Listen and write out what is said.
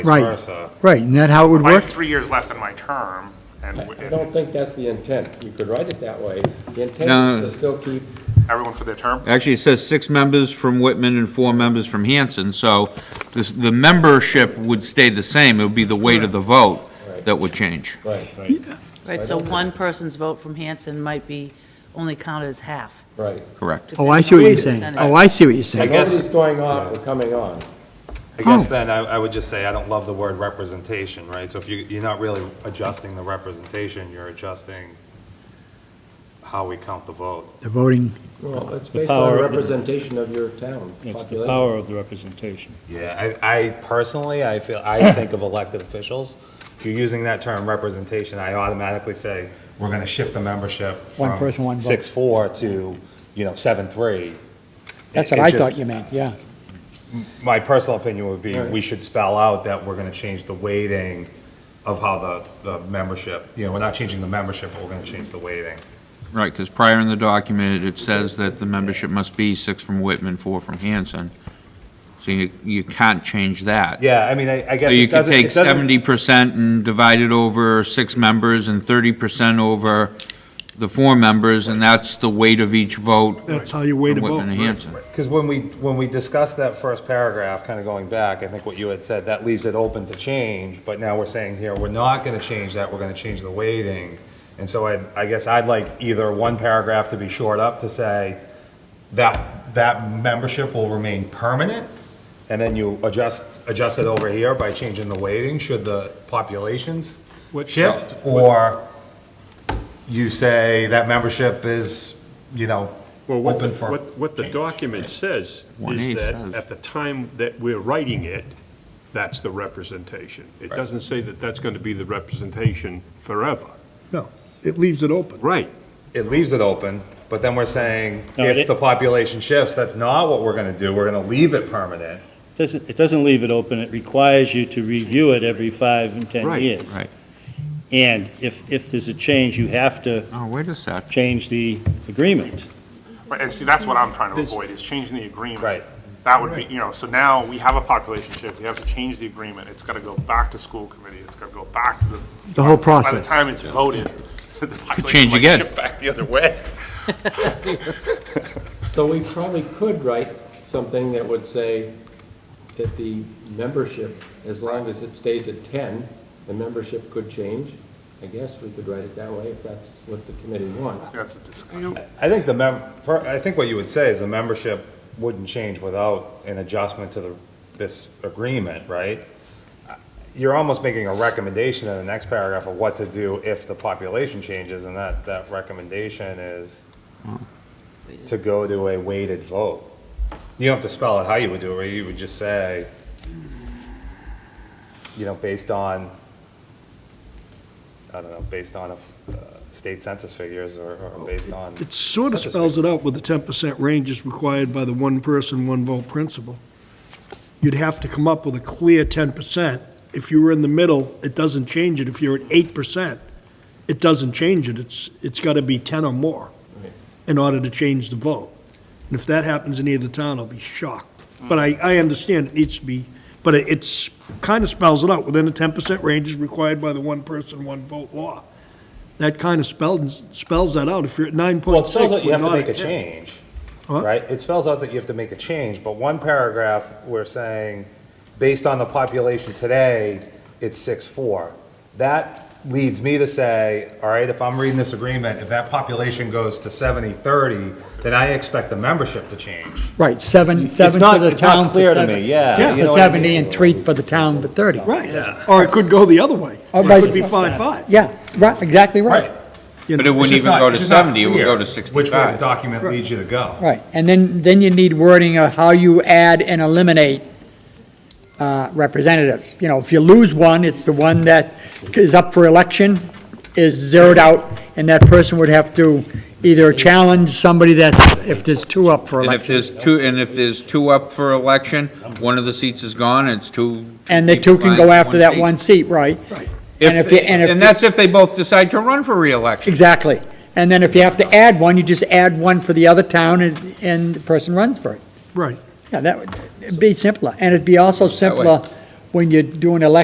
vice Right. versa. Right, isn't that how it would I have work? three years left in my term, and I don't think that's the intent. You could write it that way. The No. intent is to still keep, everyone for their term. Actually, it says six members from Whitman and four members from Hanson, so this, the membership would stay the same, it would be the weight of the vote that would change. right, Right, so one person's vote from Hanson might be only counted as half. right. Correct. Oh, I see what you're saying. depending on Oh, the I see what you're So saying. guess- Nobody's going off or coming on. I guess Oh. then I, I would just say I don't love the word representation, right? So if you, you're not really adjusting the representation, you're adjusting how we count the vote. The voting, Well, it's The based on power- representation of your town It's the population. power of the representation. Yeah, I, I personally, I feel, I think of elected officials. If you're using that term representation, I automatically say, we're gonna shift the membership One from person, one vote. Six, four to, you know, seven, three. that's what It- it I just- thought you meant, yeah. My personal opinion would be, we should spell out that we're gonna change the weighting of how the, the membership, you know, we're not changing the membership, but we're gonna change the weighting. Right, because prior in the document, it says that the membership must be six from Whitman, four from Hanson. So you, you can't change that. Yeah, I mean, I, I So guess you it could doesn't, take it doesn't, seventy percent and divide it over six members and thirty percent over the four members, and that's the weight of each vote. That's how you weigh the from Whitman vote, and right. Hanson. because when we, when we discussed that first paragraph, kind of going back, I think what you had said, that leaves it open to change, but now we're saying here, we're not gonna change that, we're gonna change the weighting. And so I, I guess I'd like either one paragraph to be short up to say, that, that membership will remain permanent, and then you adjust, adjust it over here by changing the weighting, should the populations shift, or you say that membership is, you know, Well, what, the- open for. what, what the document says One is eight that says. at the time that we're writing it, that's the representation. It doesn't say that that's going to be the representation forever. No, it leaves it open. Right. It leaves it open, but then we're saying, No, if it- the population shifts, that's not what we're gonna do, we're gonna leave it permanent. Doesn't, it doesn't leave it open, it requires you to review it every five and 10 Right, years. right. And if, if there's a change, you have to Oh, wait a sec. change the agreement. Right, and see, that's what I'm trying to This- avoid, is changing the agreement. Right. That would be, you know, so now we have a population shift, we have to change the agreement, it's gotta go back to school committee, it's gotta go back to the. The whole By the process. time it's voted, the population change might again. shift back the other way. So we probably could write something that would say that the membership, as long as it stays at 10, the membership could change. I guess we could write it that way if that's what the committee wants. That's a discussion. I think the mem, per- I think what you would say is the membership wouldn't change without an adjustment to the, this agreement, right? You're almost making a recommendation in the next paragraph of what to do if the population changes, and that, that recommendation is to go to a weighted vote. You don't have to spell out how you would do it, right? You would just say, you know, based on, I don't know, based on uh, state census figures or, or based on. It sort of spells it out with the ten percent range is required by the one person, one vote principle. You'd have to come up with a clear ten percent. If you were in the middle, it doesn't change it. If you're at eight percent, it doesn't change it. It's, it's gotta be ten or more in order to change the vote. And if that happens in either town, I'll be shocked. But I, I understand it needs to be, but it- it's, kind of spells it out, within the ten percent range is required by the one person, one vote law. That kind of spells, spells that out. If you're at nine Well, it point six, spells out you we're have to not make a at ten. change, Huh? right? It spells out that you have to make a change, but one paragraph, we're saying, based on the population today, it's six, four. That leads me to say, all right, if I'm reading this agreement, if that population goes to seventy, thirty, then I expect the membership to change. Right, seven, seven not- for the it's not town for clear to seven- me, yeah, you know For what I seventy mean? and three for the town for thirty. Right, or it could go the other way. Or It vice- could be five-five. Yeah, right, exactly right, you But know. it wouldn't even go to seventy, it would go to Which way the sixty-five. document leads you to go. right. And then, then you need wording of how you add and eliminate uh, representatives. You know, if you lose one, it's the one that is up for election, is zeroed out, and that person would have to either challenge somebody that, if there's two up for And if election. there's two, and if there's two up for election, one of the seats is gone, it's two. And the two can people go vying for after that seat. one seat, right? And if If, you- and if and you- that's if they both decide to run for reelection. Exactly. And then if you have to add one, you just add one for the other town and, and the person runs for it. Right, Yeah, that would it'd be simpler. And it'd be also way. simpler when you do an election